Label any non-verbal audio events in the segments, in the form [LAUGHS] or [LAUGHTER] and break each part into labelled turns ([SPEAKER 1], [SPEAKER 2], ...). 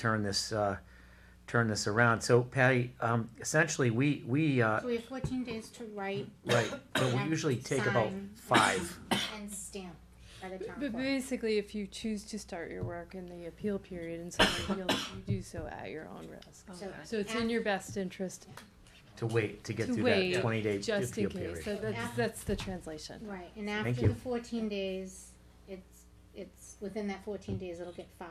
[SPEAKER 1] turn this, uh, turn this around. So Patty, um, essentially, we, we, uh, [COUGHS]
[SPEAKER 2] So we have fourteen days to write
[SPEAKER 1] right, but we
[SPEAKER 2] And
[SPEAKER 1] usually take about
[SPEAKER 2] sign.
[SPEAKER 1] five.
[SPEAKER 2] and stamp by the town
[SPEAKER 3] But
[SPEAKER 2] clerk.
[SPEAKER 3] basically, if you choose to start your work in the appeal period
[SPEAKER 2] [COUGHS]
[SPEAKER 3] and someone appeals, you do so at your own risk.
[SPEAKER 2] So-
[SPEAKER 3] So it's in your best interest,
[SPEAKER 1] to wait to get
[SPEAKER 3] To
[SPEAKER 1] through
[SPEAKER 3] wait,
[SPEAKER 1] that 20 day
[SPEAKER 3] just in
[SPEAKER 1] appeal
[SPEAKER 3] case.
[SPEAKER 1] period.
[SPEAKER 3] So that's, that's the translation.
[SPEAKER 2] Right, and
[SPEAKER 1] Thank
[SPEAKER 2] after
[SPEAKER 1] you.
[SPEAKER 2] the fourteen days, it's, it's, within that fourteen days, it'll get filed.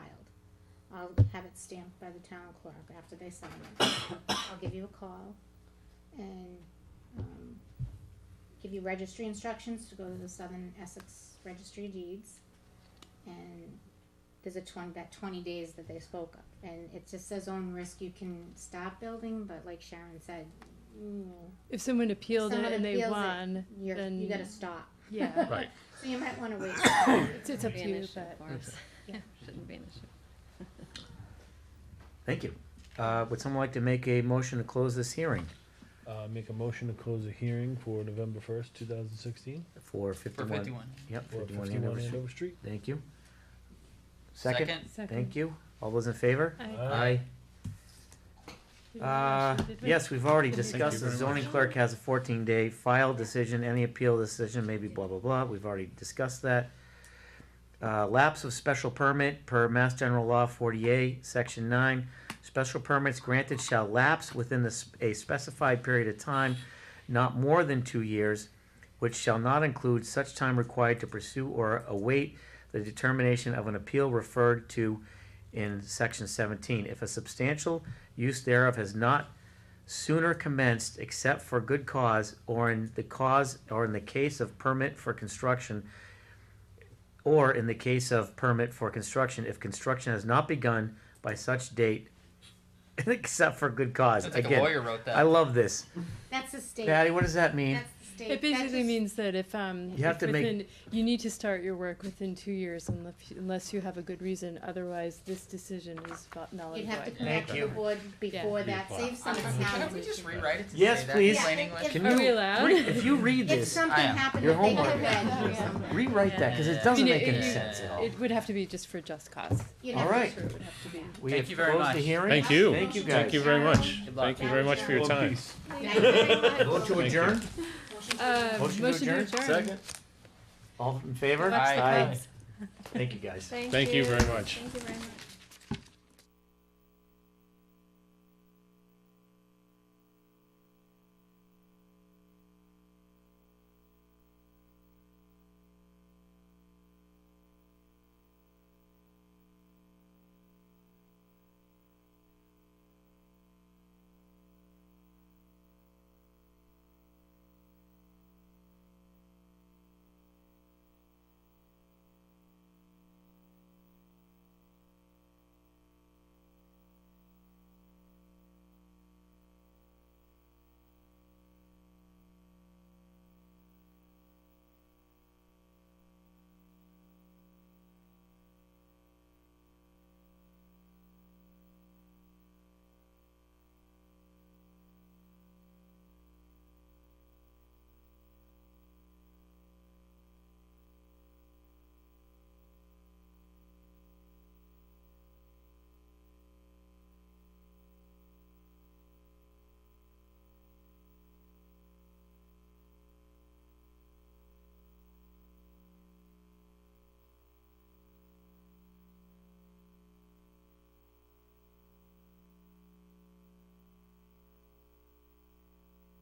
[SPEAKER 2] I'll have it stamped by the town clerk after they sign it. I'll give you a call and, um, give you registry instructions to go to the Southern Essex Registry of Deeds. And there's a twenty, that twenty days that they spoke of, and it just says own risk, you can stop building, but like Sharon said, mm,
[SPEAKER 3] If someone appealed it
[SPEAKER 2] Someone
[SPEAKER 3] and they
[SPEAKER 2] appeals it,
[SPEAKER 3] won,
[SPEAKER 2] you're,
[SPEAKER 3] Then-
[SPEAKER 2] you gotta stop.
[SPEAKER 3] yeah,
[SPEAKER 1] Right.
[SPEAKER 2] So you might wanna wait.
[SPEAKER 3] [LAUGHS] it's, it's up to
[SPEAKER 4] Be an
[SPEAKER 3] you,
[SPEAKER 4] issue,
[SPEAKER 3] but.
[SPEAKER 4] of
[SPEAKER 3] [LAUGHS]
[SPEAKER 4] course.
[SPEAKER 2] Yeah.
[SPEAKER 4] [LAUGHS] Shouldn't be an issue.
[SPEAKER 1] Thank you. Uh, would someone like to make a motion to close this hearing
[SPEAKER 5] Uh, make a motion to close the hearing for November first, two thousand sixteen,
[SPEAKER 1] for
[SPEAKER 6] For
[SPEAKER 1] 51?
[SPEAKER 6] fifty-one.
[SPEAKER 1] Yep,
[SPEAKER 5] for
[SPEAKER 1] 51
[SPEAKER 5] fifty-one
[SPEAKER 1] Andover Street.
[SPEAKER 5] Andover Street.
[SPEAKER 1] Thank you. Second?
[SPEAKER 3] Second.
[SPEAKER 1] Thank you. Uh, All those in favor?
[SPEAKER 3] I-
[SPEAKER 1] Aye.
[SPEAKER 5] Aye.
[SPEAKER 3] did we
[SPEAKER 1] Uh,
[SPEAKER 3] actually- did we?
[SPEAKER 1] yes, we've already
[SPEAKER 3] Thank you
[SPEAKER 1] discussed the
[SPEAKER 5] very
[SPEAKER 1] zoning
[SPEAKER 3] much.
[SPEAKER 1] clerk has a 14 day file decision. Any appeal decision may be blah, blah, blah. We've already discussed that. Uh, lapse of special permit per Mass General Law 48, Section 9. Special permits granted shall lapse within the, s- a specified period of time, not more than two years, which shall not include such time required to pursue or await the determination of an appeal referred to in section 17. If a substantial use thereof has not sooner commenced except for good cause or in the cause or in the case of permit for construction or in the case of permit for construction if construction has not begun by such date [LAUGHS] except for good cause
[SPEAKER 6] Sounds like a
[SPEAKER 1] again
[SPEAKER 6] lawyer wrote that.
[SPEAKER 1] i love this
[SPEAKER 2] That's the state.
[SPEAKER 1] patty what does that mean
[SPEAKER 2] That's the state.
[SPEAKER 3] It
[SPEAKER 2] That
[SPEAKER 3] basically
[SPEAKER 2] just-
[SPEAKER 3] means that if, um,
[SPEAKER 1] You have
[SPEAKER 3] if
[SPEAKER 1] to make-
[SPEAKER 3] within- You need to start your work within two years unless, unless you have a good reason, otherwise this decision is vo- null
[SPEAKER 2] You'd
[SPEAKER 3] and
[SPEAKER 2] have to
[SPEAKER 3] void.
[SPEAKER 2] come
[SPEAKER 1] Thank
[SPEAKER 2] back to
[SPEAKER 1] you.
[SPEAKER 2] the board before that, save some
[SPEAKER 6] Can we
[SPEAKER 2] time.
[SPEAKER 6] just rewrite it to
[SPEAKER 1] Yes,
[SPEAKER 6] say that?
[SPEAKER 1] please.
[SPEAKER 6] in plain English?
[SPEAKER 2] Yeah,
[SPEAKER 1] can
[SPEAKER 3] Are
[SPEAKER 1] you
[SPEAKER 3] we allowed?
[SPEAKER 1] re- if you read
[SPEAKER 2] If
[SPEAKER 1] this
[SPEAKER 2] something
[SPEAKER 6] I am.
[SPEAKER 2] happened
[SPEAKER 1] Your
[SPEAKER 2] that they could
[SPEAKER 1] homework.
[SPEAKER 2] have read or something.
[SPEAKER 1] rewrite that because it doesn't
[SPEAKER 3] I mean,
[SPEAKER 1] make
[SPEAKER 3] it-
[SPEAKER 1] any
[SPEAKER 3] it-
[SPEAKER 1] sense at all
[SPEAKER 3] It would have to be just for just cause.
[SPEAKER 2] You'd
[SPEAKER 1] All
[SPEAKER 2] have to-
[SPEAKER 1] right.
[SPEAKER 2] it would have to be.
[SPEAKER 1] we
[SPEAKER 6] Thank
[SPEAKER 1] have
[SPEAKER 6] you very
[SPEAKER 1] closed
[SPEAKER 6] much.
[SPEAKER 1] the hearing
[SPEAKER 7] Thank you.
[SPEAKER 1] thank you guys
[SPEAKER 7] Thank you very much.
[SPEAKER 6] Good luck.
[SPEAKER 7] Thank you very much for your
[SPEAKER 5] One
[SPEAKER 7] time.
[SPEAKER 5] piece.
[SPEAKER 1] vote to
[SPEAKER 7] Thank you.
[SPEAKER 1] adjourn
[SPEAKER 3] Uh,
[SPEAKER 1] Motion to
[SPEAKER 3] motion to
[SPEAKER 1] adjourn?
[SPEAKER 3] adjourn.
[SPEAKER 1] all in favor
[SPEAKER 3] Watch the
[SPEAKER 6] Aye.
[SPEAKER 3] clouds.
[SPEAKER 1] thank you guys
[SPEAKER 7] Thank you very much.
[SPEAKER 8] Thank you very much.